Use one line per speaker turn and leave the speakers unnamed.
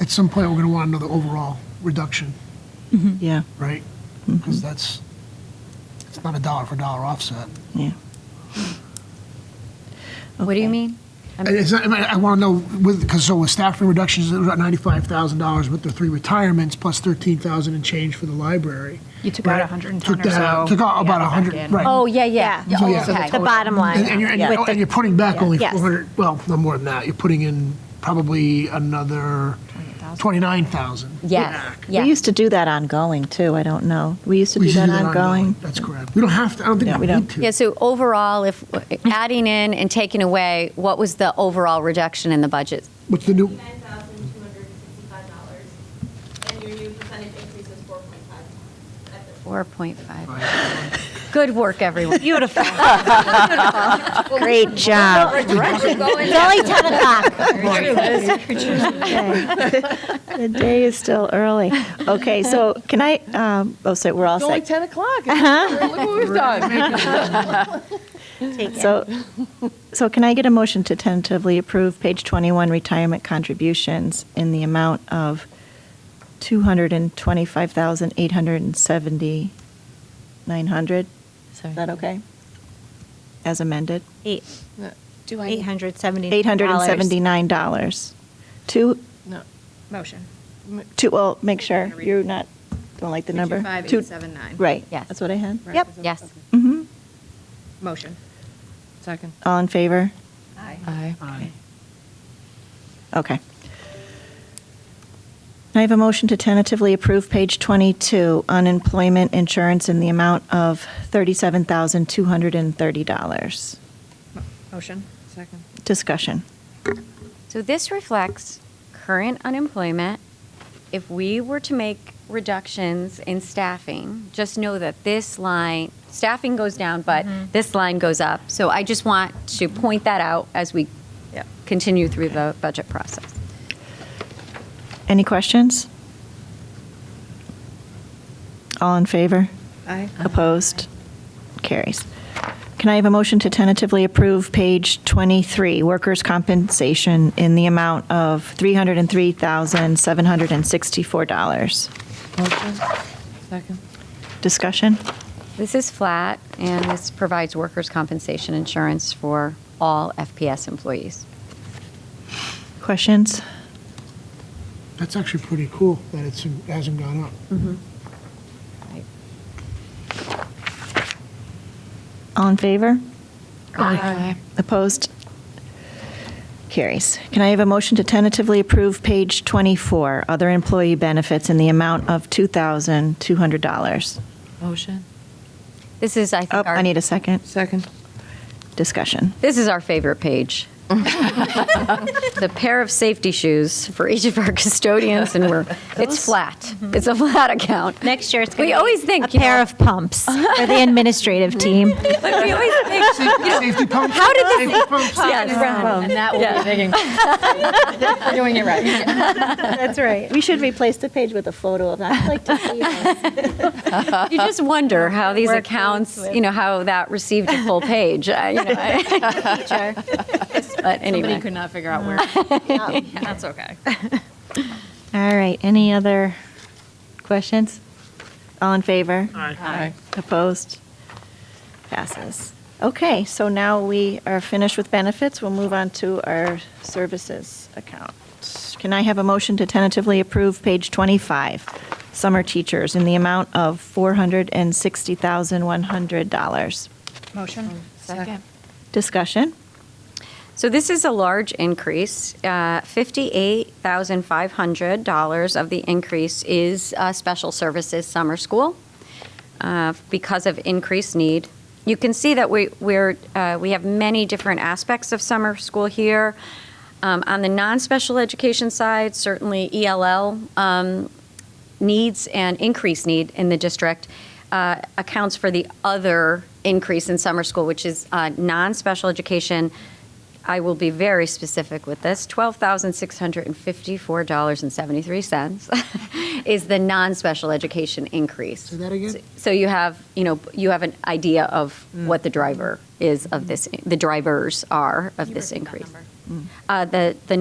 at some point, we're going to want another overall reduction,
Yeah,
right? Because that's, it's not a dollar for dollar offset.
yeah.
What do you mean?
And it's not- I mean, I want to know with, because so with staffing reductions, it was about ninety-five thousand dollars with the three retirements, plus thirteen thousand and change for the library.
You took out
Right.
110
Took
or
that out-
so.
Took out about a
Yeah, back
hundred,
in.
right.
Oh, yeah, yeah.
So, yeah.
okay.
So
The bottom line.
And, and you're, and you're-
With the-
and you're putting back only
Yes.
four hundred, well, no more than that, you're putting in probably another twenty-nine thousand.
Yes,
We
yeah.
used to do that ongoing, too. I don't know. We used to
We
do
should
that ongoing.
That's correct. We don't have to, I don't
Yeah,
think we
we
need
don't.
to.
Yeah, so overall, if adding in and taking away, what was the overall reduction in the budget?
What's the new,
$9,265, and your new percentage increase is 4.5 at the
4.5. Good work, everyone.
Beautiful. Great job.
Going
It's only 10 o'clock.
The day is still early. Okay, so can I, um, oh, so we're all
It's only
set.
10 o'clock. Look what we've done.
So, so can I get a motion to tentatively approve page 21 retirement contributions in the amount of $225,870,900? Is that okay? As amended?
Eight-
Do
$870.
$879. To,
No,
Motion.
to, well, make sure you're not, don't like the number. Two-
225,879.
Right.
Yes.
That's what I had.
right,
Yep.
is it-
Yes.
okay.
Mhm.
Motion.
Second.
All in favor?
Aye.
Aye.
Okay. I have a motion to tentatively approve page 22, unemployment insurance in the amount of $37,230.
Motion.
Second.
Discussion.
So this reflects current unemployment. If we were to make reductions in staffing, just know that this line, staffing goes down, but this line goes up. So I just want to point that out as we
Yeah.
continue through the budget process.
Any questions? All in favor?
Aye.
Opposed? Carries. Can I have a motion to tentatively approve page 23, workers' compensation in the amount of $303,764?
Motion. Second.
Discussion?
This is flat, and this provides workers' compensation insurance for all FPS employees.
Questions?
that's actually pretty cool that it's, it hasn't gone up.
All in favor?
Aye.
Opposed? Carries. Can I have a motion to tentatively approve page 24, other employee benefits in the amount of $2,200?
Motion.
This is, I
Oh,
think,
I
our,
need a second.
Second.
Discussion.
this is our favorite page. The pair of safety shoes for each of our custodians, and we're, it's flat. It's a flat account.
Next year, it's
We
going to
always
be a
think, you
pair
know,
of pumps for the administrative team.
but we always think,
Safety pumps?
how did this?
Safety pumps?
And that will be digging. We're doing it right.
That's right. We should replace the page with a photo of that. I'd like to see it.
You just wonder how these accounts, you know, how that received a full page. I- you know, I- But
Somebody
anyway.
could not figure out where. That's okay.
All right, any other questions?
All in favor?
Aye.
Opposed? Passes. Okay, so now we are finished with benefits. We'll move on to our services account. Can I have a motion to tentatively approve page 25, summer teachers, in the amount of $460,100?
Motion. Second.
Discussion?
So this is a large increase. Uh, $58,500 of the increase is uh, Special Services Summer School uh, because of increased need. You can see that we, we're, uh, we have many different aspects of summer school here. Um, On the non-special education side, certainly ELL um, needs and increased need in the district uh, accounts for the other increase in summer school, which is uh, non-special education. I will be very specific with this. $12,654.73 is the non-special education increase.
Say that again? Mm.
So you have, you know, you have an idea of what the driver is of this, the drivers are of this increase. Uh, The, the